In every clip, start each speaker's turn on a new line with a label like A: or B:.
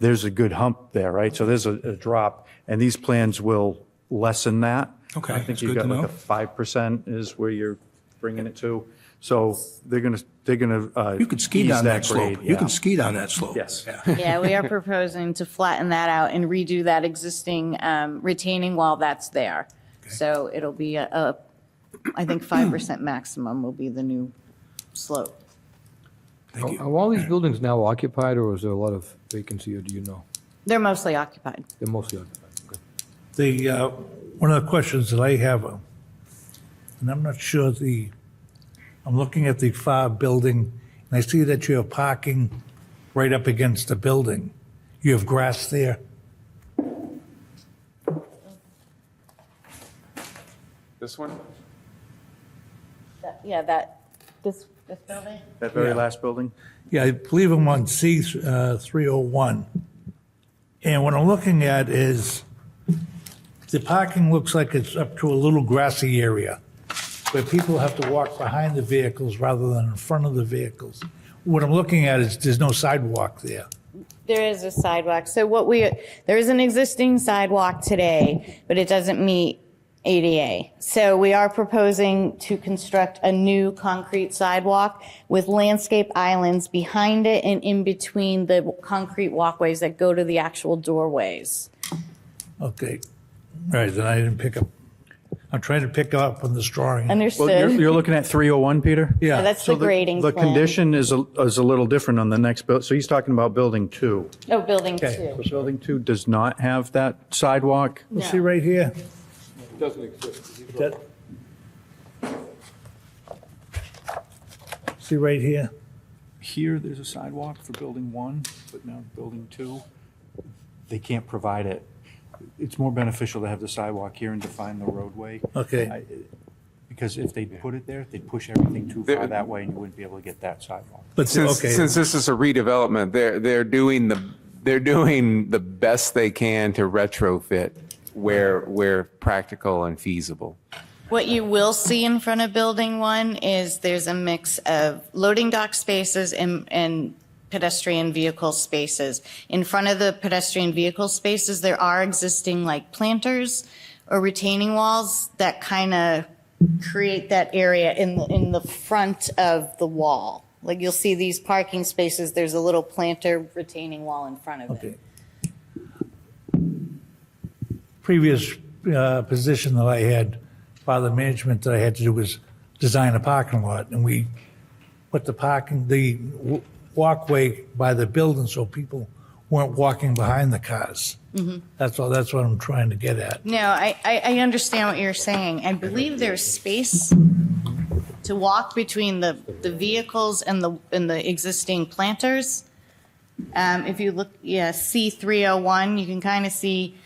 A: there's a good hump there, right? So there's a, a drop, and these plans will lessen that.
B: Okay,
A: I think
B: that's
A: you've
B: good
A: got
B: to
A: like
B: know.
A: a five percent is where you're bringing it to. So they're gonna, they're gonna, uh.
B: You could ski
A: ease
B: down that slope.
A: grade,
B: You
A: yeah.
B: could ski down that slope.
A: Yes.
B: Yeah.
C: Yeah, we are proposing to flatten that out and redo that existing um, retaining wall that's there. So it'll be a- a, I think 5% maximum will be the new slope.
B: Thank
D: Are
B: you.
D: all these buildings now occupied, or is there a lot of vacancy, or do you know?
C: They're mostly occupied.
D: They're mostly occupied. okay.
E: The, uh, one of the questions that I have, uh, and I'm not sure the, I'm looking at the far building, and I see that you have parking right up against the building. You have grass there.
F: This one?
C: Yeah, that, this, this building?
A: That very last building?
E: Yeah, I believe I'm on C uh, 301. And what I'm looking at is, the parking looks like it's up to a little grassy area where people have to walk behind the vehicles rather than in front of the vehicles. What I'm looking at is, there's no sidewalk there.
C: There is a sidewalk. So what we, there is an existing sidewalk today, but it doesn't meet ADA. So we are proposing to construct a new concrete sidewalk with landscape islands behind it and in between the concrete walkways that go to the actual doorways.
E: Okay, all right, then I didn't pick up, I'm trying to pick up on this drawing.
A: Well, you're,
C: Understood?
A: you're looking at 301, Peter?
E: Yeah.
C: That's
A: So
C: the grading plan.
A: The condition is, a- is a little different on the next build, so he's talking about building two.
C: Oh, building
E: Okay.
C: two.
A: Building two does not have that sidewalk.
E: You See
C: No.
E: right here?
F: Doesn't exist.
E: That- See right here?
A: Here, there's a sidewalk for building one, but now building two, they can't provide it. It's more beneficial to have the sidewalk here and define the roadway.
E: Okay.
A: I- Because if they put it there, they'd push everything too far that way and you wouldn't be able to get that sidewalk.
E: But, the-
F: Since,
E: okay.
F: since this is a redevelopment, they're, they're doing the, they're doing the best they can to retrofit where, where practical and feasible.
C: What you will see in front of building one is there's a mix of loading dock spaces and, and pedestrian vehicle spaces. In front of the pedestrian vehicle spaces, there are existing like planters or retaining walls that kind of create that area in, the- in the front of the wall. Like you'll see these parking spaces, there's a little planter retaining wall in front of it.
E: Okay. Previous uh, position that I had, by the management that I had to do was design a parking lot, and we put the parking, the w- walkway by the building so people weren't walking behind the cars. That's all, that's what I'm trying to get at.
C: No, I, I, I understand what you're saying. I believe there's space to walk between the, the vehicles and the, and the existing planters. Um, if you look, yeah, C three oh one, you can kind of see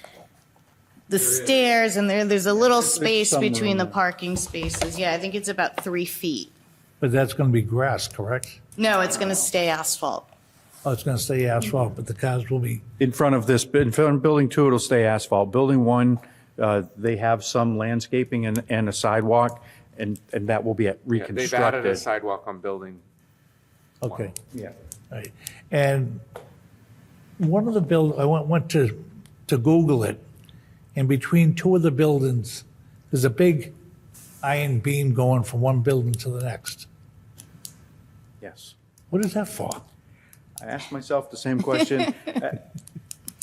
C: the stairs and there, there's a little space
A: some room
C: between the
A: there.
C: parking spaces. Yeah, I think it's about three feet.
E: But that's going to be grass, correct?
C: No, it's gonna stay asphalt.
E: Oh, it's going to stay asphalt, but the cars will be,
A: In front of this, in front of building two, it'll stay asphalt. Building one, uh, they have some landscaping and, and a sidewalk, and, and that will be reconstructed.
F: They've added a sidewalk on building.
E: okay.
A: Yeah.
E: Right. And one of the build, I went, went to, to Google it, and between two of the buildings, there's a big iron beam going from one building to the next.
A: Yes.
E: What is that for?
A: I asked myself the same question. Uh,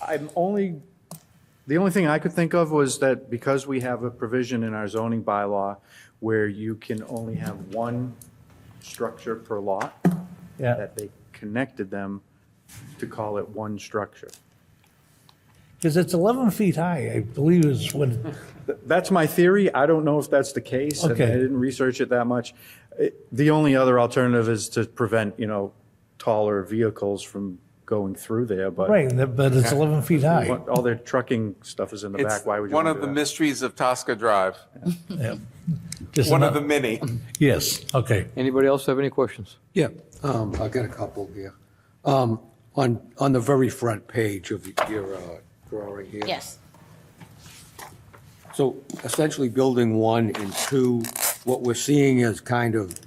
A: I'm only, the only thing I could think of was that because we have a provision in our zoning bylaw where you can only have one structure per lot,
E: Yeah,
A: that they connected them to call it one structure.
E: because it's 11 feet high, I believe is what,
A: Th- That's my theory. I don't know if that's the case. and I
E: Okay.
A: didn't research it that much. It- The only other alternative is to prevent, you know, taller vehicles from going through there, but
E: right, but it's 11 feet high.
A: all their trucking stuff is in the
F: It's
A: back. Why would you
F: one
A: wanna
F: of
A: do
F: the
A: that?
F: mysteries of Tosca Drive,
E: Just
F: one of the
E: another-
F: many.
E: Yes, okay.
D: Anybody else have any questions?
G: Yeah, um, I've got a couple here. Um, On, on the very front page of your uh, drawing here.
C: Yes.
G: So essentially, building one and two, what we're seeing is kind of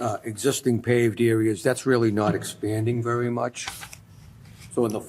G: uh, existing paved areas, that's really not expanding very much. So in the